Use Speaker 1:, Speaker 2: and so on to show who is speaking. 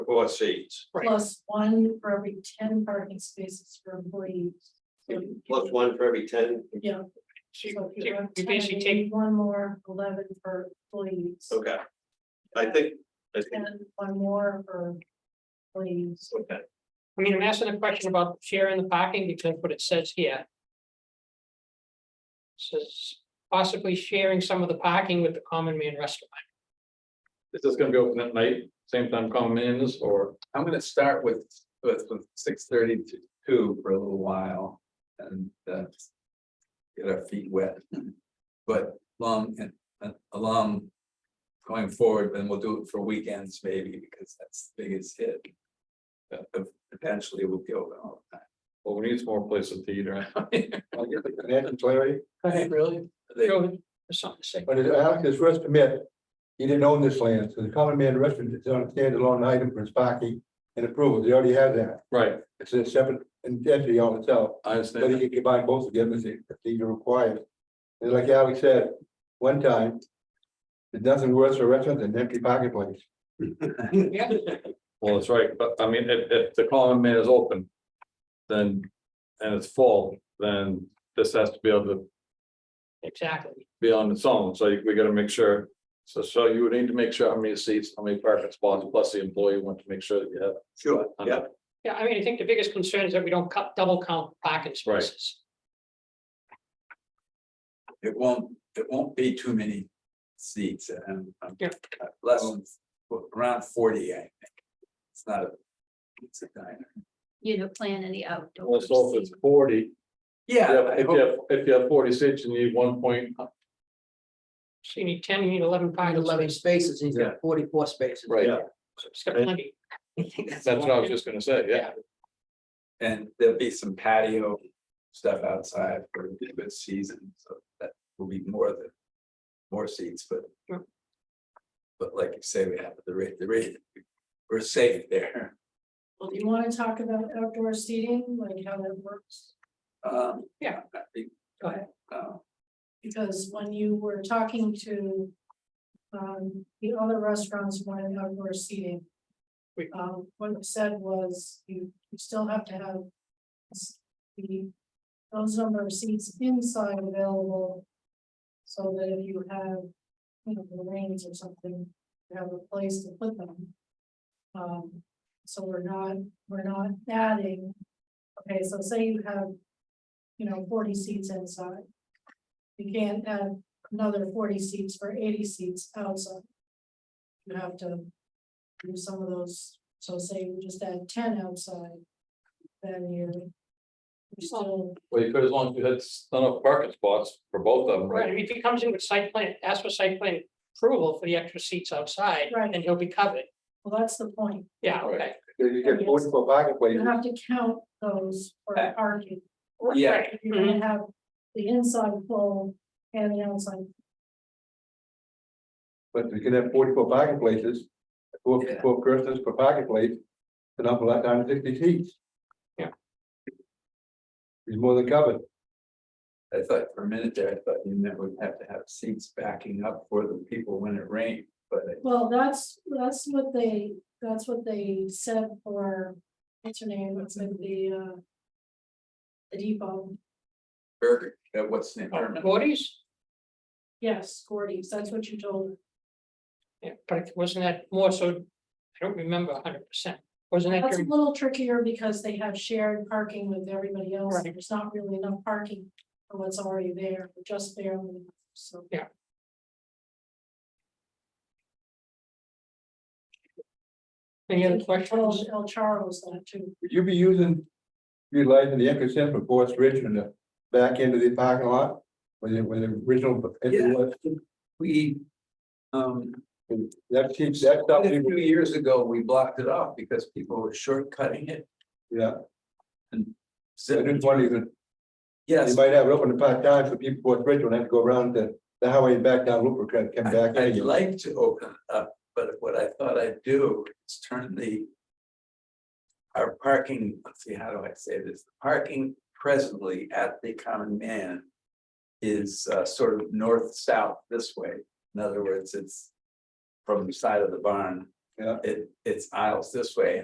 Speaker 1: four seats,
Speaker 2: Right.
Speaker 3: plus one for every ten parking spaces for employees. So,
Speaker 1: plus one for every ten,
Speaker 3: Yeah. so
Speaker 2: She-
Speaker 3: if you
Speaker 2: she-
Speaker 3: have
Speaker 2: We
Speaker 3: 10,
Speaker 2: basically
Speaker 3: you
Speaker 2: take,
Speaker 3: need One more, eleven for employees,
Speaker 1: okay. I think, I think,
Speaker 3: and one more for employees.
Speaker 1: okay,
Speaker 2: I mean, I'm asking a question about sharing the parking because what it says here. Says possibly sharing some of the parking with the common man restaurant.
Speaker 4: Is this gonna be open at night, same time common man is, or?
Speaker 5: I'm gonna start with, with, with six thirty to two for a little while and, uh. Get our feet wet, but long and, and along. Going forward, then we'll do it for weekends maybe, because that's the biggest hit. Uh, if- Eventually we'll go all the
Speaker 4: Well, we need some more places to eat, right?
Speaker 5: time.
Speaker 6: I guess I can add and Larry,
Speaker 5: really?
Speaker 2: Go ahead, there's something to say.
Speaker 6: but as Alex is rest admit, he didn't own this land, so the common man restaurant is on a standalone item for its parking and approval, they already have that.
Speaker 4: Right,
Speaker 6: It's a separate entity all itself,
Speaker 5: I
Speaker 6: so
Speaker 5: understand.
Speaker 6: he can combine both of them if he- if he requires. And like Alex said, one time, there's nothing worse for restaurants than an empty parking place.
Speaker 2: Yeah,
Speaker 4: well, that's right, but I mean, if, if the common man is open. Then, and it's full, then this has to be able to
Speaker 2: exactly.
Speaker 4: be on its own, so we gotta make sure. So, so you would need to make sure how many seats, how many parking spots, plus the employee want to make sure that you have.
Speaker 1: sure, yeah.
Speaker 2: Yeah, I mean, I think the biggest concern is that we don't cut double count parking
Speaker 4: Right.
Speaker 2: spaces.
Speaker 5: It won't, it won't be too many seats and, um,
Speaker 2: Yeah.
Speaker 5: less than, around forty, I think. It's not a, it's a diner.
Speaker 7: you know, plan in the outdoor.
Speaker 4: Well, so if it's
Speaker 7: seating.
Speaker 4: forty,
Speaker 5: Yeah. I
Speaker 4: if you
Speaker 5: hope-
Speaker 4: have, if you have forty seats, you need one point,
Speaker 2: So you need ten, you need eleven
Speaker 8: Find
Speaker 2: parking
Speaker 8: eleven
Speaker 2: spaces.
Speaker 8: spaces, he's got forty-four spaces.
Speaker 4: right,
Speaker 1: Yeah.
Speaker 2: So It's got plenty.
Speaker 4: that's what I was just gonna say, yeah.
Speaker 5: And there'll be some patio stuff outside for a good season, so that will be more than. More seats, but.
Speaker 2: Sure.
Speaker 5: But like you say, we have the rate, the rate, we're safe there.
Speaker 3: Well, do you want to talk about outdoor seating, like how that works?
Speaker 5: Um,
Speaker 2: Yeah.
Speaker 5: I think,
Speaker 2: Go ahead.
Speaker 5: uh,
Speaker 3: Because when you were talking to um, the other restaurants wanted outdoor seating.
Speaker 2: Wait.
Speaker 3: Um, what you said was you, you still have to have s- the, those number of seats inside available. So that if you have, you know, the range or something, you have a place to put them. Um, so we're not, we're not adding, okay, so say you have, you know, forty seats inside. You can't add another forty seats for eighty seats outside. You have to do some of those, so say you just add ten outside, then you're you're still,
Speaker 4: Well, you could, as long as you had s- enough parking spots for both of them,
Speaker 2: Right,
Speaker 4: right?
Speaker 2: and if he comes in with site plan, ask for site plan approval for the extra seats outside,
Speaker 3: Right.
Speaker 2: and he'll be covered.
Speaker 3: well, that's the point.
Speaker 2: Yeah, okay.
Speaker 6: You get multiple parking
Speaker 3: You
Speaker 6: places,
Speaker 3: have to count those for
Speaker 5: Uh,
Speaker 3: parking.
Speaker 5: yeah.
Speaker 2: Right,
Speaker 3: You're gonna have the inside full and the outside.
Speaker 6: but we can have forty-four parking places. Four,
Speaker 5: Yeah.
Speaker 6: four persons per parking place, an awful lot, nine sixty seats.
Speaker 2: Yeah.
Speaker 6: It's more than covered.
Speaker 5: I thought for a minute there, I thought you meant we'd have to have seats backing up for the people when it rained, but. it-
Speaker 3: Well, that's, that's what they, that's what they said for, what's her name, what's in the, uh. The depot,
Speaker 5: Burger, uh, what's the name?
Speaker 2: Oh, Gordy's,
Speaker 3: yes, Gordy's, that's what you told,
Speaker 2: yeah, but wasn't that more so, I don't remember hundred percent, wasn't that
Speaker 3: that's a
Speaker 2: during-
Speaker 3: little trickier because they have shared parking with everybody else,
Speaker 2: Right.
Speaker 3: there's not really enough parking. For what's already there, just barely, so.
Speaker 2: any other
Speaker 3: I told
Speaker 2: questions?
Speaker 3: El Charles that too,
Speaker 6: Would you be using, utilizing the ecosystem for Forest Ridge and the back end of the parking lot? When the, when the original,
Speaker 5: Yeah. We, um,
Speaker 6: that keeps, that stuff,
Speaker 5: Quite A few years ago, we blocked it off because people were shortcutting it.
Speaker 6: yeah, I
Speaker 5: So,
Speaker 6: didn't want even,
Speaker 5: yes,
Speaker 6: you might have it open the part time for people, Forest Ridge will have to go around the, the highway and back down Looper, come come
Speaker 5: I-
Speaker 6: back.
Speaker 5: I'd like to open it up, but what I thought I'd do is turn the. Our parking, let's see, how do I say this? The Parking presently at the common man. Is uh, sort of north-south this way. In other words, it's from the side of the barn
Speaker 6: Yeah.
Speaker 5: It, it's aisles this way